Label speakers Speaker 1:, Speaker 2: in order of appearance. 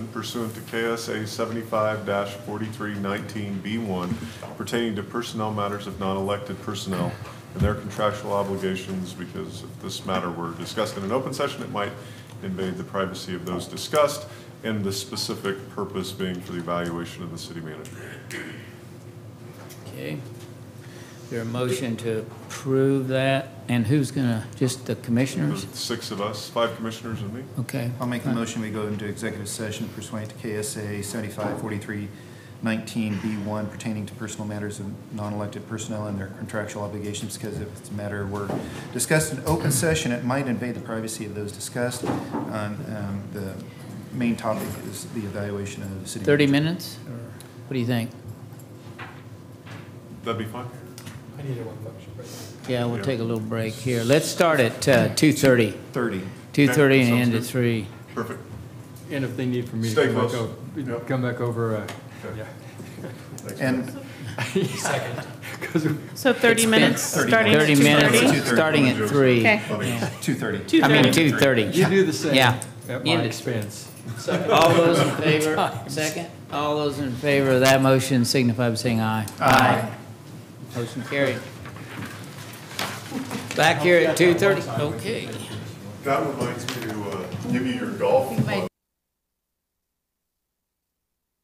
Speaker 1: pursuant to KSA 75-4319B1 pertaining to personnel matters of non-elected personnel and their contractual obligations, because if this matter were discussed in an open session, it might invade the privacy of those discussed, and the specific purpose being for the evaluation of the city manager.
Speaker 2: Okay. There a motion to approve that? And who's gonna, just the
Speaker 1: There's
Speaker 2: commissioners?
Speaker 1: six of us, five commissioners and me.
Speaker 2: Okay.
Speaker 3: I'll make the motion, we go into executive session pursuant to KSA seventy-five forty-three nineteen B one pertaining to personal matters of non-elected personnel and their contractual obligations, because if it's a matter were discussed in open session, it might invade the privacy of those discussed. Um, um, the main topic is the evaluation of the city.
Speaker 2: Thirty
Speaker 3: manager.
Speaker 2: minutes, or what do you think?
Speaker 1: That'd be fine.
Speaker 4: I need a one function break.
Speaker 2: Yeah, we'll
Speaker 1: Yeah.
Speaker 2: take a little break here. Let's start at, uh, two thirty.
Speaker 3: Thirty.
Speaker 2: Two thirty and
Speaker 1: sounds
Speaker 2: end at
Speaker 1: good.
Speaker 2: three.
Speaker 1: Perfect.
Speaker 4: And if they need for me
Speaker 1: Stay
Speaker 4: to come back
Speaker 1: close.
Speaker 4: over,
Speaker 1: Yep.
Speaker 4: come back over, uh,
Speaker 1: Okay.
Speaker 4: yeah.
Speaker 3: And
Speaker 4: Second. Because
Speaker 5: So 30 minutes,
Speaker 3: been 30
Speaker 5: starting at 2:30?
Speaker 2: Thirty minutes,
Speaker 3: 2:30.
Speaker 2: starting at three.
Speaker 5: Okay.
Speaker 2: Yeah.
Speaker 3: two thirty.
Speaker 2: I mean, two
Speaker 5: 2:30.
Speaker 2: thirty.
Speaker 4: you do the same.
Speaker 2: Yeah.
Speaker 4: At
Speaker 2: End
Speaker 4: my
Speaker 2: it.
Speaker 4: expense.
Speaker 2: All those in favor, second, all those in favor of that motion signify by saying aye. Aye. Motion carried. Back here at two thirty, okay.
Speaker 1: That reminds me to uh, give you your golf club.